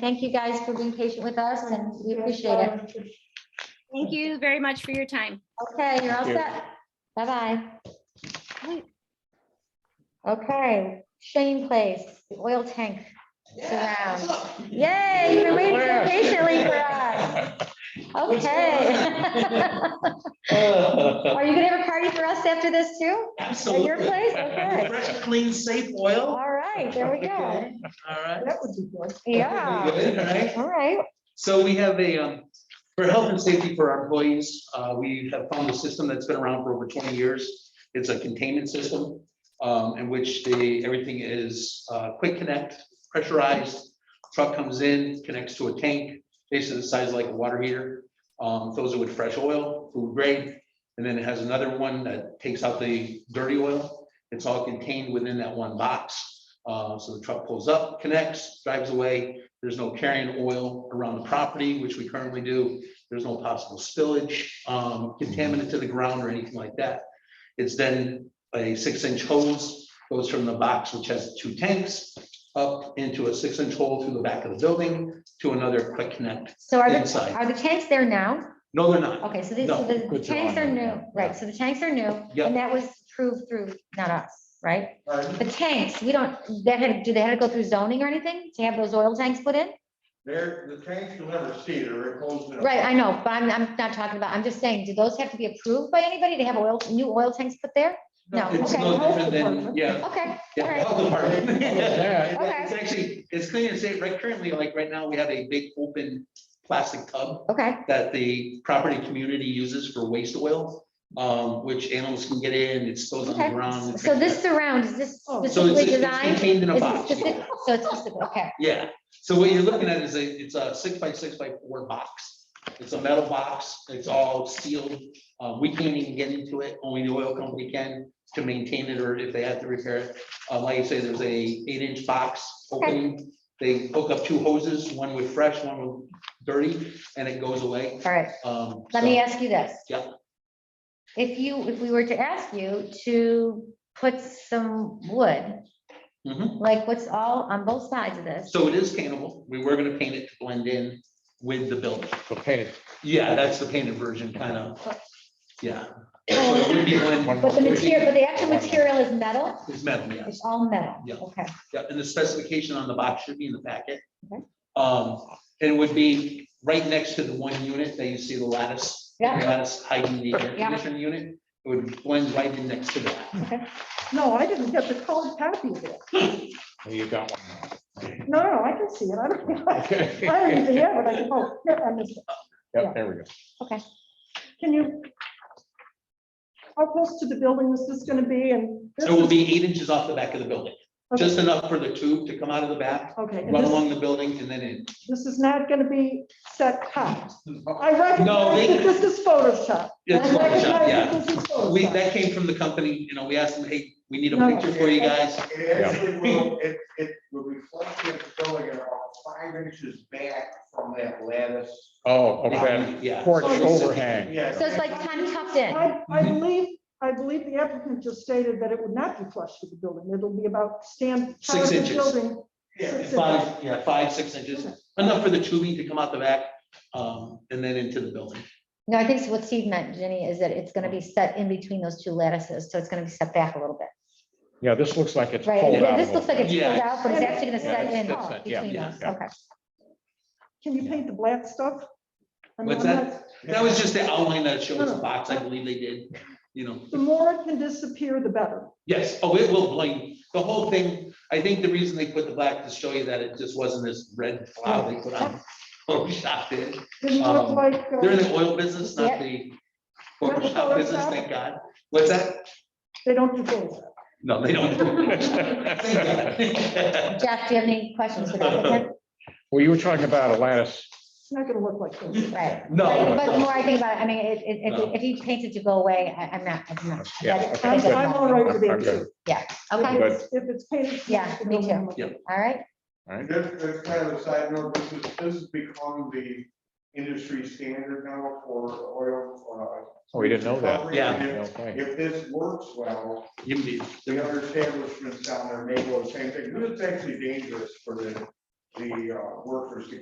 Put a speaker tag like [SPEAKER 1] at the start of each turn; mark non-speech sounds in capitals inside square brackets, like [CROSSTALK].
[SPEAKER 1] Thank you guys for being patient with us and we appreciate it.
[SPEAKER 2] Thank you very much for your time.
[SPEAKER 1] Okay, you're all
[SPEAKER 3] Thank you.
[SPEAKER 1] set. Bye-bye. Okay, Shane Place, the oil tank surround. Yay, you've been waiting so patiently for us. Okay. [LAUGHS]
[SPEAKER 4] [LAUGHS]
[SPEAKER 1] Are you gonna have a party for us after this too?
[SPEAKER 4] Absolutely.
[SPEAKER 1] At your place? Okay.
[SPEAKER 4] Fresh, clean, safe oil,
[SPEAKER 1] All right, there we go.
[SPEAKER 4] all right.
[SPEAKER 5] That would be good.
[SPEAKER 1] Yeah,
[SPEAKER 4] Pretty good, all right.
[SPEAKER 1] all right.
[SPEAKER 4] So we have a, um, for health and safety for our employees, uh, we have found a system that's been around for over twenty years. It's a containment system, um, in which the, everything is, uh, quick connect, pressurized. Truck comes in, connects to a tank, basically the size like a water heater. Um, fills it with fresh oil, food grade, and then it has another one that takes out the dirty oil. It's all contained within that one box. Uh, so the truck pulls up, connects, drives away, there's no carrying oil around the property, which we currently do. There's no possible spillage, um, contaminant to the ground or anything like that. It's then a six inch hose goes from the box, which has two tanks, up into a six inch hole through the back of the building to another quick connect
[SPEAKER 1] So are the,
[SPEAKER 4] inside.
[SPEAKER 1] are the tanks there now?
[SPEAKER 4] No, they're not.
[SPEAKER 1] Okay, so these,
[SPEAKER 4] No,
[SPEAKER 1] so the
[SPEAKER 3] good job
[SPEAKER 1] tanks
[SPEAKER 3] on
[SPEAKER 1] are
[SPEAKER 3] that,
[SPEAKER 1] new,
[SPEAKER 3] yeah.
[SPEAKER 1] right, so the tanks are new,
[SPEAKER 4] Yeah.
[SPEAKER 1] and that was approved through, not us, right?
[SPEAKER 4] Pardon?
[SPEAKER 1] The tanks, we don't, that had, do they had to go through zoning or anything to have those oil tanks put in?
[SPEAKER 6] There, the tanks you'll never see, they're enclosed in a.
[SPEAKER 1] Right, I know, but I'm, I'm not talking about, I'm just saying, do those have to be approved by anybody to have oil, new oil tanks put there? No,
[SPEAKER 4] It's
[SPEAKER 1] okay,
[SPEAKER 4] no different than, yeah.
[SPEAKER 1] okay, all
[SPEAKER 4] yeah,
[SPEAKER 1] right,
[SPEAKER 4] health department.
[SPEAKER 3] Yeah.
[SPEAKER 1] [LAUGHS] Okay.
[SPEAKER 4] It's actually, it's clean and safe. Right currently, like right now, we have a big open plastic tub
[SPEAKER 1] okay,
[SPEAKER 4] that the property community uses for waste oil, um, which animals can get in, it spills on the
[SPEAKER 1] Okay.
[SPEAKER 4] ground. and
[SPEAKER 1] so
[SPEAKER 4] things
[SPEAKER 1] this
[SPEAKER 4] like
[SPEAKER 1] surround, is this
[SPEAKER 5] So
[SPEAKER 4] that. So it's,
[SPEAKER 1] specifically
[SPEAKER 4] it's
[SPEAKER 1] designed?
[SPEAKER 4] contained in
[SPEAKER 1] Is
[SPEAKER 4] a
[SPEAKER 1] it
[SPEAKER 4] box.
[SPEAKER 1] specific- So it's specific, okay,
[SPEAKER 4] Yeah, so what you're looking at is a, it's a six by six by four box. It's a metal box, it's all sealed. Uh, we can't even get into it, only the oil company can to maintain it or if they have to repair it. Uh, like I say, there's a eight inch box opening. They hook up two hoses, one with fresh, one with dirty, and it goes away.
[SPEAKER 1] all right,
[SPEAKER 4] Um,
[SPEAKER 1] let
[SPEAKER 4] so-
[SPEAKER 1] me ask you this.
[SPEAKER 4] Yeah.
[SPEAKER 1] If you, if we were to ask you to put some wood
[SPEAKER 4] Mhm.
[SPEAKER 1] like what's all on both sides of this.
[SPEAKER 4] So it is paintable. We were gonna paint it to blend in with the building.
[SPEAKER 3] So painted.
[SPEAKER 4] Yeah, that's the painted version, kind of. Yeah. So it would be blend-
[SPEAKER 1] But the material, but the actual material is metal,
[SPEAKER 4] It's metal, yeah.
[SPEAKER 1] it's all metal,
[SPEAKER 4] Yeah.
[SPEAKER 1] okay,
[SPEAKER 4] Yeah, and the specification on the box should be in the packet.
[SPEAKER 1] Okay.
[SPEAKER 4] Um, and it would be right next to the one unit that you see the lattice. the
[SPEAKER 1] Yeah.
[SPEAKER 4] Lattice hiding the air
[SPEAKER 1] Yeah.
[SPEAKER 4] conditioning unit. It would blend right in next to that.
[SPEAKER 5] No, I didn't get the colored copy of it.
[SPEAKER 3] Oh, You got one. [LAUGHS]
[SPEAKER 5] No, no, I can see it. I don't, [LAUGHS] I don't even
[SPEAKER 3] Yep,
[SPEAKER 5] have it. I can, oh, here, I missed it.
[SPEAKER 3] there we go.
[SPEAKER 5] Can you? How close to the building is this gonna be and? this
[SPEAKER 4] So it will
[SPEAKER 5] is-
[SPEAKER 4] be eight inches off the back of the building,
[SPEAKER 5] okay,
[SPEAKER 4] just enough for the tube to come out of the back,
[SPEAKER 5] Okay, and
[SPEAKER 4] run
[SPEAKER 5] this,
[SPEAKER 4] along the building and then in.
[SPEAKER 5] this is not gonna be set hot. I recognize
[SPEAKER 4] they-
[SPEAKER 5] that this is Photoshop.
[SPEAKER 4] It's
[SPEAKER 5] I recognize
[SPEAKER 4] Photoshop, yeah.
[SPEAKER 5] that this is
[SPEAKER 4] We,
[SPEAKER 5] Photoshop.
[SPEAKER 4] that came from the company, you know, we asked them, hey, we need a
[SPEAKER 5] No.
[SPEAKER 4] picture for you guys.
[SPEAKER 6] It actually will, it, it will reflect the building about five inches back from that lattice.
[SPEAKER 3] Oh, okay.
[SPEAKER 4] Yeah. Oh,
[SPEAKER 3] Porch
[SPEAKER 4] So it's-
[SPEAKER 3] overhang.
[SPEAKER 6] Yeah.
[SPEAKER 1] so it's like kind of tucked in,
[SPEAKER 5] I, I
[SPEAKER 4] Mm-hmm.
[SPEAKER 5] believe, I believe the applicant just stated that it would not be flush with the building. It'll be about stand.
[SPEAKER 4] Six
[SPEAKER 5] part of the
[SPEAKER 4] inches.
[SPEAKER 5] building.
[SPEAKER 6] Yeah.
[SPEAKER 4] Five, yeah, five, six inches, enough for the tubing to come out the back, um, and then into the building.
[SPEAKER 1] no, I think what Steve meant, Jenny, is that it's gonna be set in between those two lattices, so it's gonna be set back a little bit,
[SPEAKER 3] Yeah, this looks like it's
[SPEAKER 1] right?
[SPEAKER 3] pulled
[SPEAKER 1] Yeah,
[SPEAKER 3] out.
[SPEAKER 1] This
[SPEAKER 3] a
[SPEAKER 1] looks
[SPEAKER 3] little
[SPEAKER 1] like it's pulled
[SPEAKER 4] Yeah.
[SPEAKER 1] out, but it's actually gonna
[SPEAKER 5] Yeah,
[SPEAKER 1] set in
[SPEAKER 3] that's- that's it, yeah,
[SPEAKER 1] between
[SPEAKER 4] yeah,
[SPEAKER 1] those,
[SPEAKER 3] yeah.
[SPEAKER 1] okay,
[SPEAKER 5] Can you paint the black stuff? I mean,
[SPEAKER 4] What's
[SPEAKER 5] I'm
[SPEAKER 4] that?
[SPEAKER 5] not-
[SPEAKER 4] That was just the outline that shows the box, I believe they did, you know,
[SPEAKER 5] The more it can disappear, the better.
[SPEAKER 4] yes, oh, it will blend, the whole thing, I think the reason they put the black to show you that it just wasn't this red cloud they put on. [LAUGHS] Photoshop did,
[SPEAKER 5] Didn't look
[SPEAKER 4] Um,
[SPEAKER 5] like. uh,
[SPEAKER 4] they're in the oil business, not the Photoshop business, thank God, what's that?
[SPEAKER 5] They don't do both.
[SPEAKER 4] No, they don't. [LAUGHS]
[SPEAKER 1] Jeff, do you have any questions? for the applicant?
[SPEAKER 3] Well, you were talking about a lattice.
[SPEAKER 5] It's not gonna look like [LAUGHS] this.
[SPEAKER 1] Right. But but the
[SPEAKER 4] No.
[SPEAKER 1] more I think about it, I mean, it- it-
[SPEAKER 4] No.
[SPEAKER 1] if, if he paints it to go away, I, I'm not, I'm not.
[SPEAKER 3] Yeah,
[SPEAKER 1] that is-
[SPEAKER 3] okay.
[SPEAKER 5] I'm,
[SPEAKER 1] that is-
[SPEAKER 5] I'm all right with it
[SPEAKER 3] Okay.
[SPEAKER 5] too.
[SPEAKER 1] Okay,
[SPEAKER 3] Good.
[SPEAKER 5] If it's- If it's painted.
[SPEAKER 1] Yeah, me
[SPEAKER 5] it'll
[SPEAKER 1] too.
[SPEAKER 5] look-
[SPEAKER 1] all right,
[SPEAKER 6] That's, that's kind of a side note, this is, this has become the industry standard now for oil. uh,
[SPEAKER 3] Oh, we didn't know that.
[SPEAKER 6] recovery.
[SPEAKER 4] Yeah.
[SPEAKER 6] If-
[SPEAKER 3] Okay.
[SPEAKER 6] If this works well,
[SPEAKER 4] You-
[SPEAKER 6] the other establishments down there may go the same thing, but it's actually dangerous for the the uh, workers to